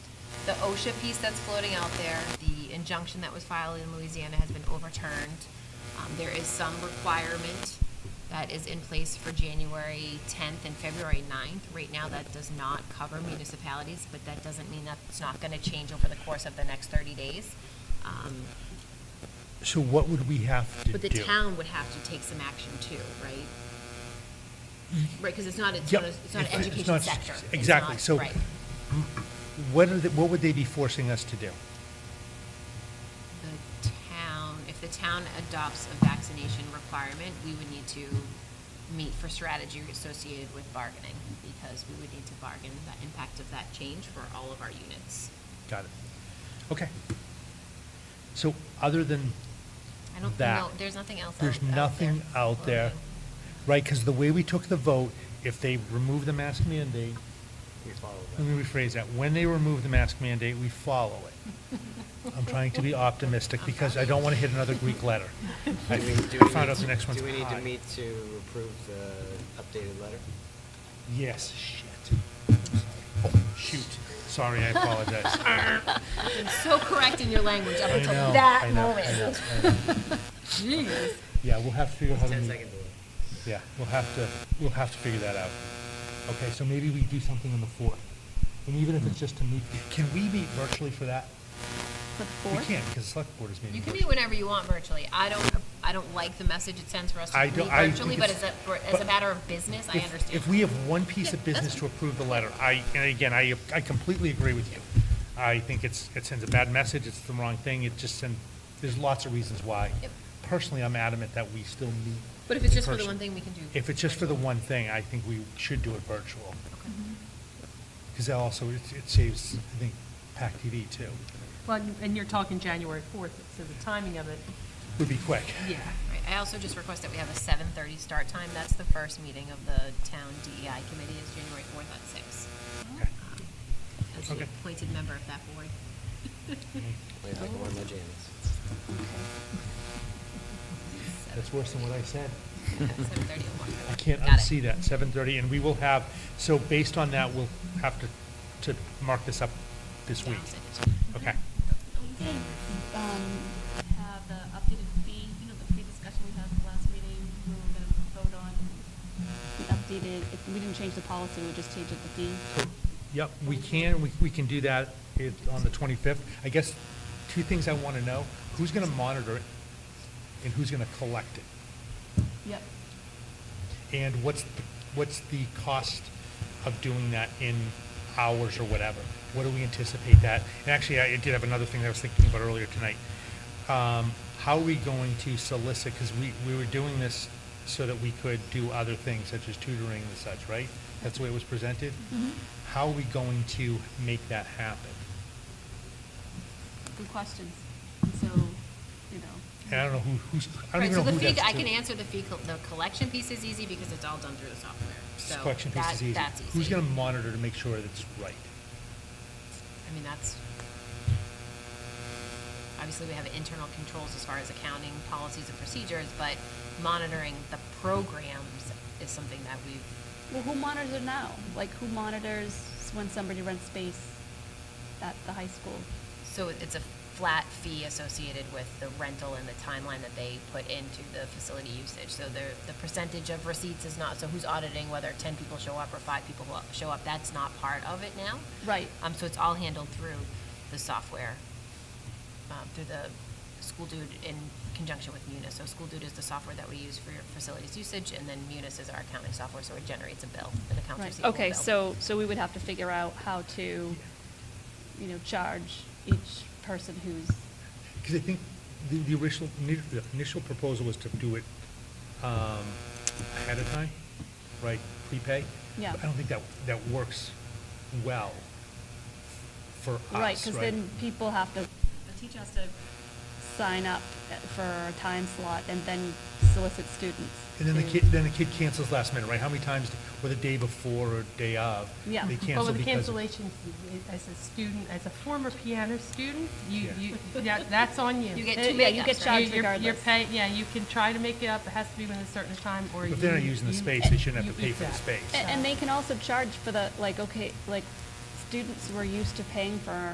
the OSHA piece that's floating out there, the injunction that was filed in Louisiana has been overturned. Um, there is some requirement that is in place for January tenth and February 9th. Right now, that does not cover municipalities, but that doesn't mean that it's not gonna change over the course of the next thirty days. Um, So what would we have to do? But the town would have to take some action too, right? Right, because it's not, it's not, Mm. Yep. a- it's not an It's- it's education not- sector. It's exactly. not- So- Right. What are, the- what would they be forcing us to do? The town, if the town adopts a vaccination requirement, we would need to meet for strategy associated with bargaining, because we would need to bargain the impact of that change for all of our units. Got it. Okay. So other than I don't, that. no, there's nothing else out out there. There's nothing out there, right? Because the way we took the vote, if they remove the mask mandate, let me rephrase that, when they remove the mask mandate, we follow it. I'm trying to be optimistic because I don't want to hit another Greek letter. I Do we- do think- we I found need out the to- next one's Do we need to high. meet to approve the updated letter? Yes, shit. I'm sorry. Oh, Shoot, sorry, I apologize. You've been so correct in your language up I until know, I that know, I moment. know, I know. Jeez. Yeah, we'll have to figure out how to Ten meet. second delay. Yeah, we'll have to, we'll have to figure that out. Okay, so maybe we do something on the fourth. And even if it's just to meet, can we meet virtually for that? For the We fourth? can't, because select board is meeting. You can meet virtually. whenever you want virtually. I don't, I don't like the message it sends for us to I meet don't- I- virtually, but as because- a, for- as but a matter of business, I If- understand. If we have one piece Yeah, of business that's to approve the letter, I, and again, I, I completely agree with you. I think it's, it sends a bad message, it's the wrong thing, it just sends, there's lots of reasons why. Yep. Personally, I'm adamant that we still meet. But if it's in just for the person. one thing, we can do. If it's just for the virtual. one thing, I think we should do it virtual. Because that also, it it saves, I think, PAC TV too, Well, and- and you're talking January 4th, so the timing of it, would be quick. yeah. Right. I also just request that we have a seven thirty start time. That's the first meeting of the town DEI committee is January fourth at six. Okay. Um, As the Okay. appointed member of that board. Wait, I can wear my jammies. That's worse than what I said. Seven thirty or one. I can't Got it. unsee that, 7:30, and we will have, so based on that, we'll have to, to mark this up this Yeah, week. I'll send it to you. Okay, Okay, um, have the updated fee, you know, the fee discussion we had at the last meeting, we were gonna vote on. We updated, it- we didn't change the policy, we just changed it to fee. yep, we can, we, we can do that it- on the 25th. I guess, two things I want to know, who's going to monitor it, and who's going to collect it? Yep. And what's, what's the cost of doing that in hours or whatever? What do we anticipate that? And actually, I did have another thing that I was thinking about earlier tonight. Um, How are we going to solicit, because we, we were doing this so that we could do other things such as tutoring and such, right? That's the way it was presented? Mm-hmm. How are we going to make that happen? Good questions. And so, you know, And I don't know who, who's, I don't Right, even so know the who fee, that's I can to. answer the fee, col- the collection piece is easy because it's all done through the software. So Collection piece that- is easy. That's easy. Who's going to monitor to make sure that it's right? I mean, that's, obviously, we have internal controls as far as accounting, policies and procedures, but monitoring the programs is something that we've, well, who monitors it now? Like, who monitors when somebody rents space at the high school? so it's a flat fee associated with the rental and the timeline that they put into the facility usage. So there, the percentage of receipts is not, so who's auditing whether ten people show up or five people who show up, that's not part of it now. Right. Um, so it's all handled through the software, um, through the school dude in conjunction with Munis. So school dude is the software that we use for your facilities usage, and then Munis is our accounting software, so it generates a bill, an accounts Right. receivable bill. Okay, so, so we would have to figure out how to, you know, charge each person who's, Because I think the, the original, the initial proposal was to do it um, ahead of time, right, prepay? Yeah. But I don't think that, that works well for us, right? right, because then people have to The teacher has to, sign up for a time slot and then solicit students. And then the to- kid, then the kid cancels last minute, right? How many times, or the day before or day of? Yeah. They But But cancel with the because. of- cancellations, it- as a student, as a former piano student, you, Yeah. you, that- that's on you. You get Uh, two yeah, Yeah, you makeups, right? get You're- charged you're- You're regardless. paying, yeah, you can try to make it up, it has to be within a certain time, or you. If they're not using the you- space, they shouldn't have to you pay eat for the that. space. A- And, they can also charge for the, like, okay, like, students were used to paying for